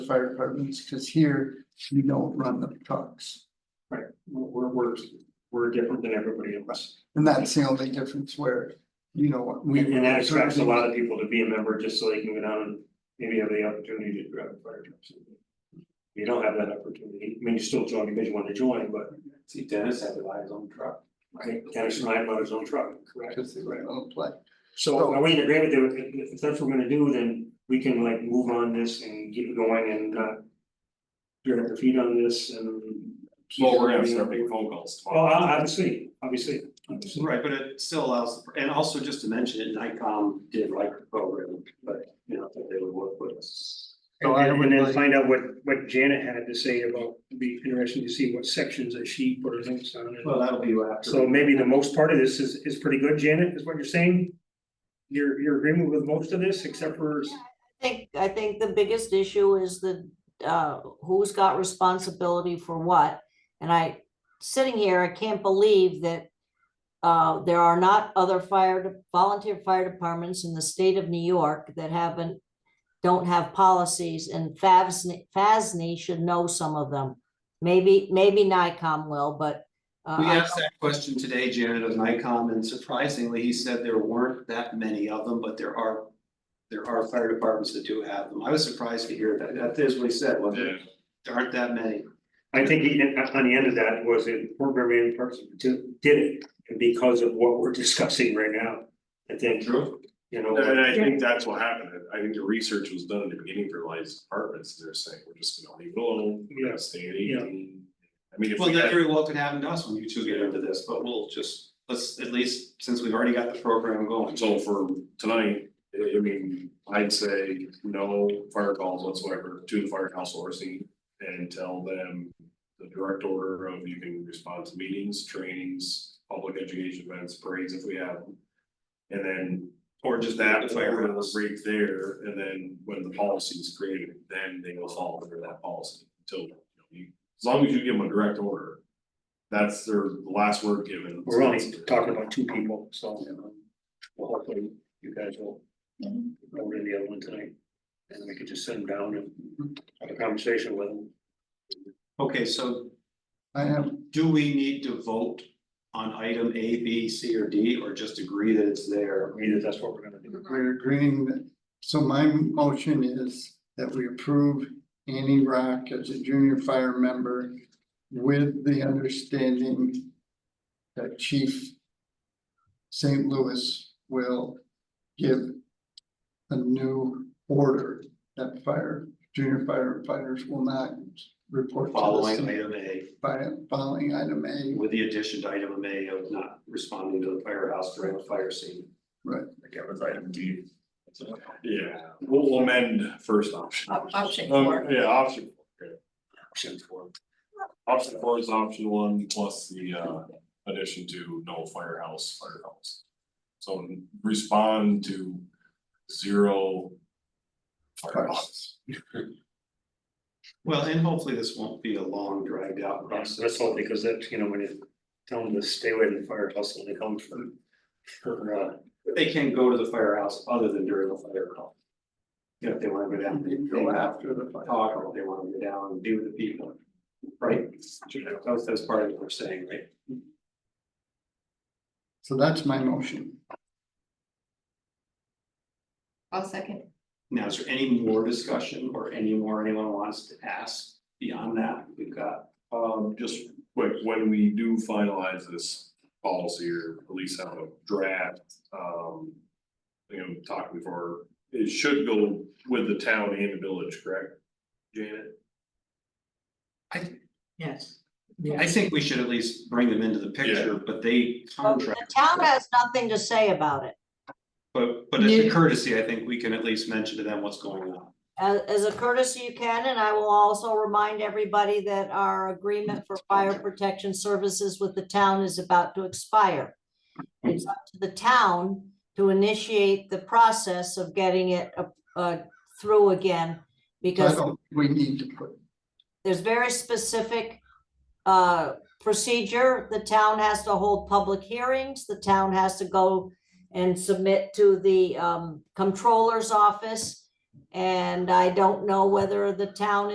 fire departments, cause here you don't run the trucks. Right, we're, we're, we're different than everybody else. And that's the only difference where, you know, we. And that attracts a lot of people to be a member just so they can go down and maybe have the opportunity to grab a fire truck. someday. You don't have that opportunity. I mean, you still join because you want to join, but See, Dennis had to buy his own truck. right, Dennis and I bought his own truck, correct? Cause they Right. run on play. So are we in agreement that if- if that's what we're gonna do, then we can like move on this and get going and not drag our feet on this and. Well, we're gonna have to start making phone calls Oh, tomorrow. obviously, obviously, obviously. Right, but it still allows, and also just to mention it, Nikon did like the program, but you know, that they would work with us. So And I then, would and then like- find out what, what Janet had to say about, it'd be interesting to see what sections that she put her notes on. And Well, that'll be after. So maybe the most part of this is, is pretty good, Janet, is what you're saying? You're, you're agreeing with most of this, except for, I think, I think the biggest issue is the, uh, who's got responsibility for what? And I, sitting here, I can't believe that uh, there are not other fire, de- volunteer fire departments in the state of New York that haven't, don't have policies, and FASN, FASNY E should know some of them. Maybe, maybe NICOM will, but uh, We I- asked that question today, Janet, of Nikon, and surprisingly, he said there weren't that many of them, but there are. There are fire departments that do have them. I was surprised to hear that. That is what he said, wasn't it? There aren't that many. I think he- on the end of that was it, programming person to- did it. And because of what we're discussing right now, I think, True. you And know, and I think that's what happened, I think the research was done in the beginning for lights departments, they're saying, we're just gonna leave it alone, we're Yeah. gonna stay at eighteen. I mean, if Well, we that had, very well could happen to us when you two get into this, but we'll just, let's, at least, since we've already got the program going. so for tonight, I I mean, I'd say no fire calls whatsoever to the firehouse or scene. And tell them the direct order of you can respond to meetings, trainings, public education events, parades if we have them. And then Or Just that firehouse right there, and then when the policy is created, then they will follow under that policy until, you know, you, as long as you give them a direct order. That's their last word given. we're only talking about two people, so. um, Well, hopefully you guys will. Go to the other one tonight. And we could just sit them down and have a conversation with them. Okay, so I have, do we need to vote on item A, B, C, or D, or just agree that it's there? Agree that that's what we're gonna do. we're agreeing that, so my motion is that we approve Annie Rock as a junior fire member. With the understanding that Chief St. Louis will give. A new order that fire, junior firefighters will not report to Following the item A, by following item A. with the addition to item A of not responding to the firehouse during the fire scene. That was item D. Yeah, we'll we'll amend first option. Op- option Um, four. Yeah, option. four, okay. Option four. Option four is option one plus the uh addition to no firehouse, firehouse. So respond to zero. Firehouses. Well, and hopefully this won't be a long dragged out process. That's all because that, you know, when you tell them to stay away from the fire hustle, they come from. For uh, They can go to the firehouse other than during the fire call. You know, if they wanna go down, they go after the fire talk, or if they wanna go down and be with the people, right? That's, that's part of what we're saying, right? So that's my motion. I'll second. Now, is there any more discussion or any more anyone wants to ask beyond that? We've got, Um, just quick, when we do finalize this policy or at least have a draft, um. You know, talked before, it should go with the town and the village, correct? Janet? Yes. I think we should at least bring them into the picture, but they Well, the contract. town has nothing to say about it. But, but as a Yeah. courtesy, I think we can at least mention to them what's going on. As, as a courtesy, you can, and I will also remind everybody that our agreement for fire protection services with the town is about to expire. It's up to the town to initiate the process of getting it, uh, uh, through again. I Because don't, we need to put there's very specific uh, procedure. The town has to hold public hearings. The town has to go and submit to the um, comptroller's office. And I don't know whether the town